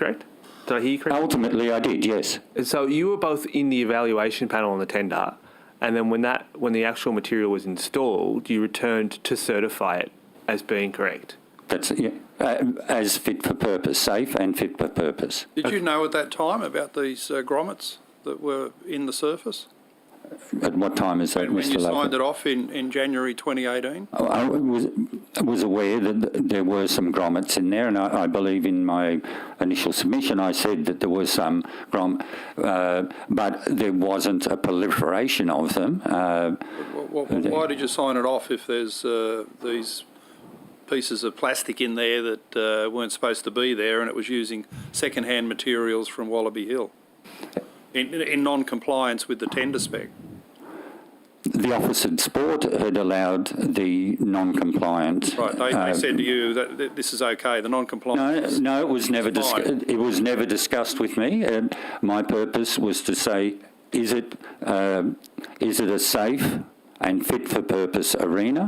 correct? Did I hear you correctly? Ultimately, I did, yes. And Uh, So you were both in the evaluation panel on the tender, and then when that when the actual material was installed, you returned to certify it as being correct. That's, yeah, uh, as fit for purpose, safe and fit for purpose. Did you know at that time about these uh, grommets that were in the surface? At what time is that, And when Mr you signed Lover? it off in, in January 2018? I I was, was aware that th- there were some grommets in there, and I, I believe in my initial submission I said that there were some grom, uh, but there wasn't a proliferation of them. Uh, Wh- wh- wh- Why did you sign it off if there's uh, these pieces of plastic in there that uh, weren't supposed to be there and it was using second-hand materials from Wallaby Hill? In, in- in non-compliance with the tender spec? the Office of Sport had allowed the non-compliant. Right, they, uh, they said to you that that this is okay, the No, non-compliance. no, it was never It's discussed. fine. It was never discussed with me. And my purpose was to say, is it um is it a safe and fit for purpose arena?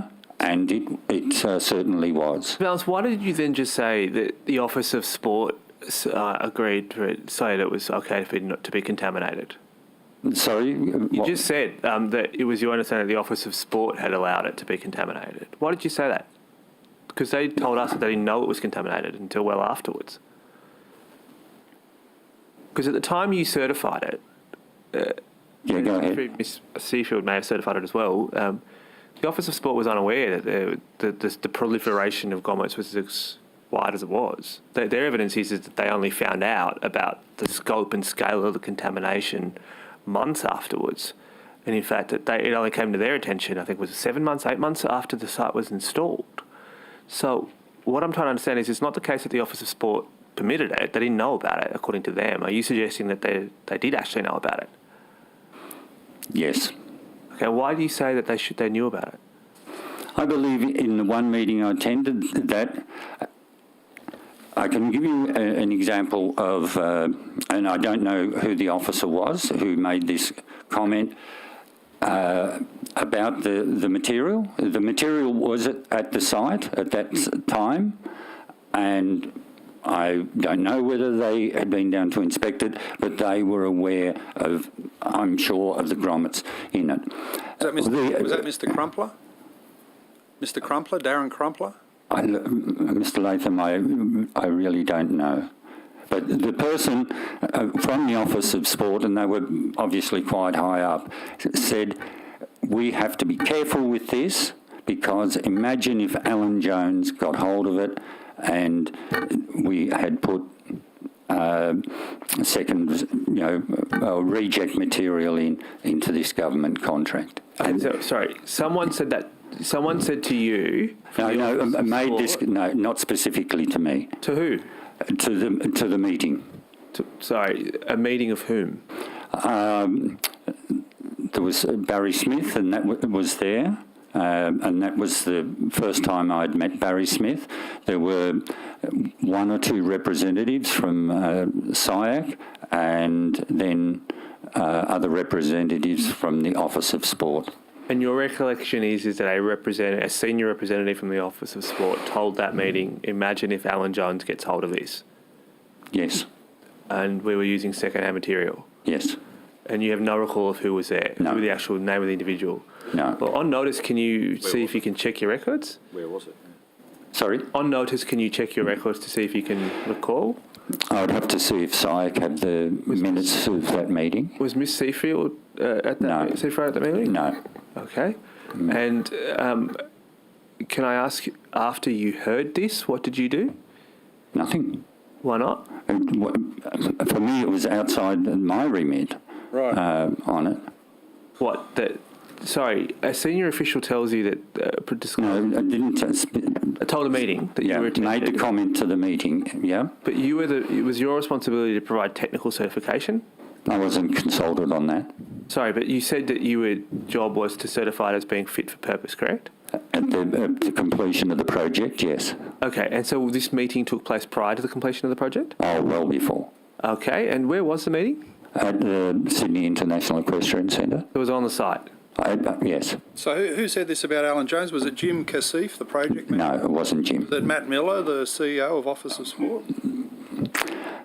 And it it uh, certainly was. Valence, why did you then just say that the Office of Sport uh, agreed for it, say that it was okay for it not to be contaminated? Sorry, You what, just said um, that it was your understanding that the Office of Sport had allowed it to be contaminated. Why did you say that? Because they told us that they didn't know it was contaminated until well afterwards. Because at the time you certified it, yeah, go ahead. Miss Seafield may have certified it as well. Um, the Office of Sport was unaware that the, the, the, the proliferation of grommets was as wide as it was. Their, their evidence is, is that they only found out about the scope and scale of the contamination months afterwards. And in fact, that they, it only came to their attention, I think, was seven months, eight months after the site was installed. So, what I'm trying to understand is it's not the case that the Office of Sport permitted it, they didn't know about it, according to them. Are you suggesting that they, they did actually know about it? Yes. Okay, why do you say that they should they knew about it? I believe in the one meeting I attended that I can give you a, an example of, uh, and I don't know who the officer was who made this comment uh, about the, the material. The material was at, at the site at that s- time, and I don't know whether they had been down to inspect it, but they were aware of, I'm sure, of the grommets in it. Was that Mr. The- was that Mr. Crumpler? Mr. Crumpler, Darren Crumpler? I, Mr. Latham, I, I really don't know. But the person uh, from the Office of Sport, and they were obviously quite high up, s- said, We have to be careful with this because imagine if Alan Jones got hold of it and we had put uh, second, you know, uh, reject material in into this government contract. And So, sorry, someone said that. Someone said to you. no, from the no, Office I of made this, Sport- no, not specifically to me. To who? to the to the meeting. To, sorry, a meeting of whom? Um, there was uh, Barry Smith, and that w- was there, um, and that was the first time I'd met Barry Smith. There were uh, one or two representatives from uh, SIAC, and then uh, other representatives from the Office of Sport. And your recollection is is that a representative, a senior representative from the Office of Sport, told that meeting, "Imagine if Alan Jones gets hold of this," Yes, and we were using secondhand material. yes, And you have no recall of who was there, No. who the actual name of the individual. no, Well, on notice, can you see if you can check your records? Where was it? sorry. On notice, can you check your records to see if you can recall? I'd have to see if SIAC had the minutes of that meeting. Was Miss Seafield uh, at that No. Seafield at that meeting? No. Okay. And um, can I ask, after you heard this, what did you do? Nothing. Why not? It w- For me, it was outside my remit Right. uh, on it. What that? Sorry, a senior official tells you that uh, pre- No, disclosed- I didn't. uh, sp- told a meeting that yeah, you were made the attending, comment to the meeting. Yeah, but you were the. It was your responsibility to provide technical certification. I wasn't consulted on that Sorry, but you said that your job was to certify it as being fit for purpose, correct? at the, at the completion of the project. Yes. Okay, and so this meeting took place prior to the completion of the project. Oh, well before Okay, and where was the meeting? at the Sydney International Equestrian Centre. It was on the site. I, uh, yes. So who, who said this about Alan Jones? Was it Jim Cassif, the project manager? No, it wasn't Jim. That Matt Miller, the CEO of E Office of Sport?